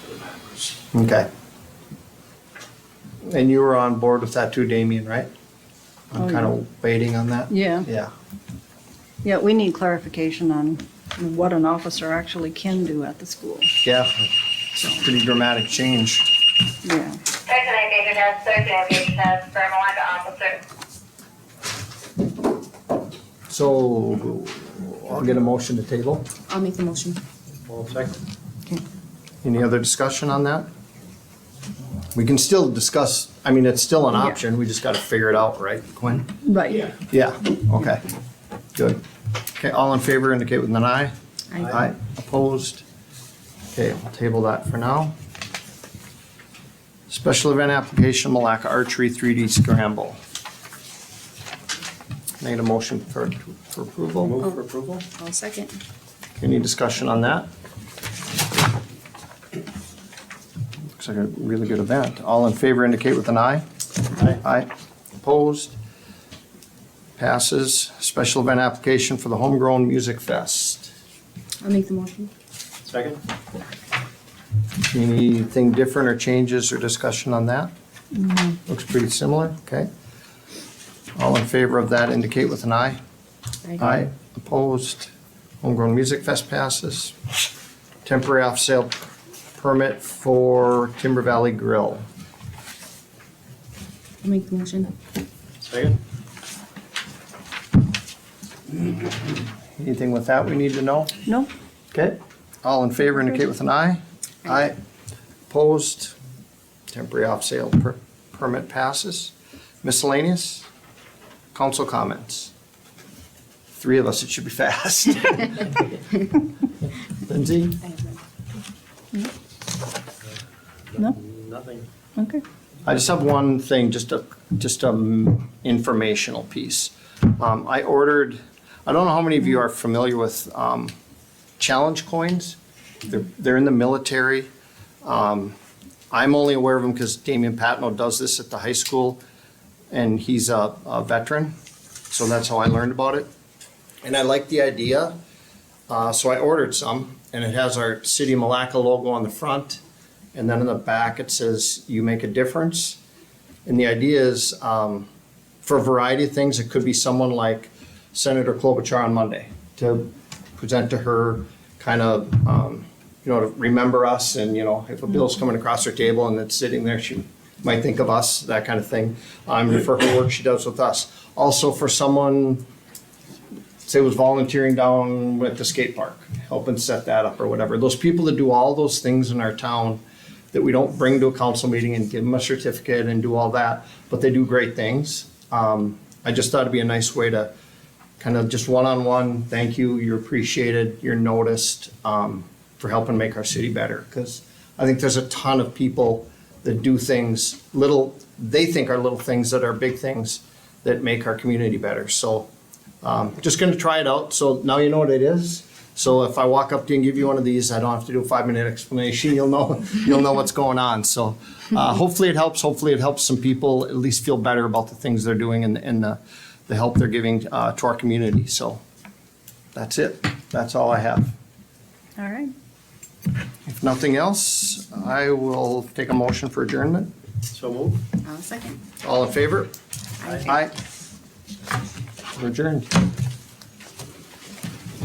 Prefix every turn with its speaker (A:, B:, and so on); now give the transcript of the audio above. A: was.
B: Okay. And you were on board with that too, Damien, right?
C: Oh,
B: I'm
C: yeah.
B: kind of waiting on that.
C: Yeah,
B: Yeah,
C: yeah, we need clarification on what an officer actually can do at the school.
B: yeah. It's a pretty dramatic change.
C: Yeah,
D: Second, David has Thursday, David has Vermont officer.
B: So I'll get a motion to table.
E: I'll make the motion.
B: Any other discussion on that? We can still discuss, I mean, it's still an
C: Yeah.
B: option, we just gotta figure it out, right, Quinn?
C: right.
B: Yeah, okay, good. Okay, all in favor indicate with an eye.
E: Aye.
B: Aye, opposed? Okay, we'll table that for now. Special event application, Malacca Archery 3D Scramble. Need a motion for, for approval?
A: for approval?
E: I'll second.
B: Any discussion on that? Looks like a really good event. All in favor indicate with an eye. Aye. Aye. Opposed? Passes. Special event application for the Homegrown Music Fest.
E: I'll make the motion.
A: Second?
B: Anything different or changes or discussion on that? Looks pretty similar, okay. All in favor of that indicate with an eye. Aye, opposed, homegrown music fest passes. Temporary off-sale permit for Timber Valley Grill.
E: I'll make the motion.
A: Second?
B: Anything with that we need to know?
C: No,
B: Okay, all in favor indicate with an aye. Aye, opposed, temporary off-sale per- permit passes. Miscellaneous, council comments. Three of us, it should be fast. Lindsay?
C: No.
A: Nothing.
C: okay.
B: I just have one thing, just a, just a m- informational piece. Um, I ordered, I don't know how many of you are familiar with, um, challenge coins. They're, they're in the military. Um, I'm only aware of them because Damian Patno does this at the high school and he's a, a veteran. So that's how I learned about it. And I like the idea. Uh, so I ordered some and it has our city of Malacca logo on the front. And then in the back, it says, you make a difference. And the idea is, um, for a variety of things, it could be someone like Senator Klobuchar on Monday to present to her, kind of, um, you know, to remember us and, you know, if a bill's coming across her table and it's sitting there, she might think of us, that kind of thing. Um, for her work she does with us. Also for someone, say was volunteering down at the skate park, helping set that up or whatever. Those people that do all those things in our town that we don't bring to a council meeting and give them a certificate and do all that, but they do great things. Um, I just thought it'd be a nice way to kind of just one-on-one, thank you, you're appreciated, you're noticed, um, for helping make our city better. Cause I think there's a ton of people that do things, little, they think are little things that are big things that make our community better. So um, just gonna try it out, so now you know what it is. So if I walk up to you and give you one of these, I don't have to do a five-minute explanation, you'll know, you'll know what's going on, so. Uh, hopefully it helps, hopefully it helps some people at least feel better about the things they're doing and, and the, the help they're giving, uh, to our community, so. That's it, that's all I have.
C: All right.
B: If nothing else, I will take a motion for adjournment.
A: So move.
E: I'll second.
B: All in favor?
E: Aye.
B: Aye. We're Adjourned.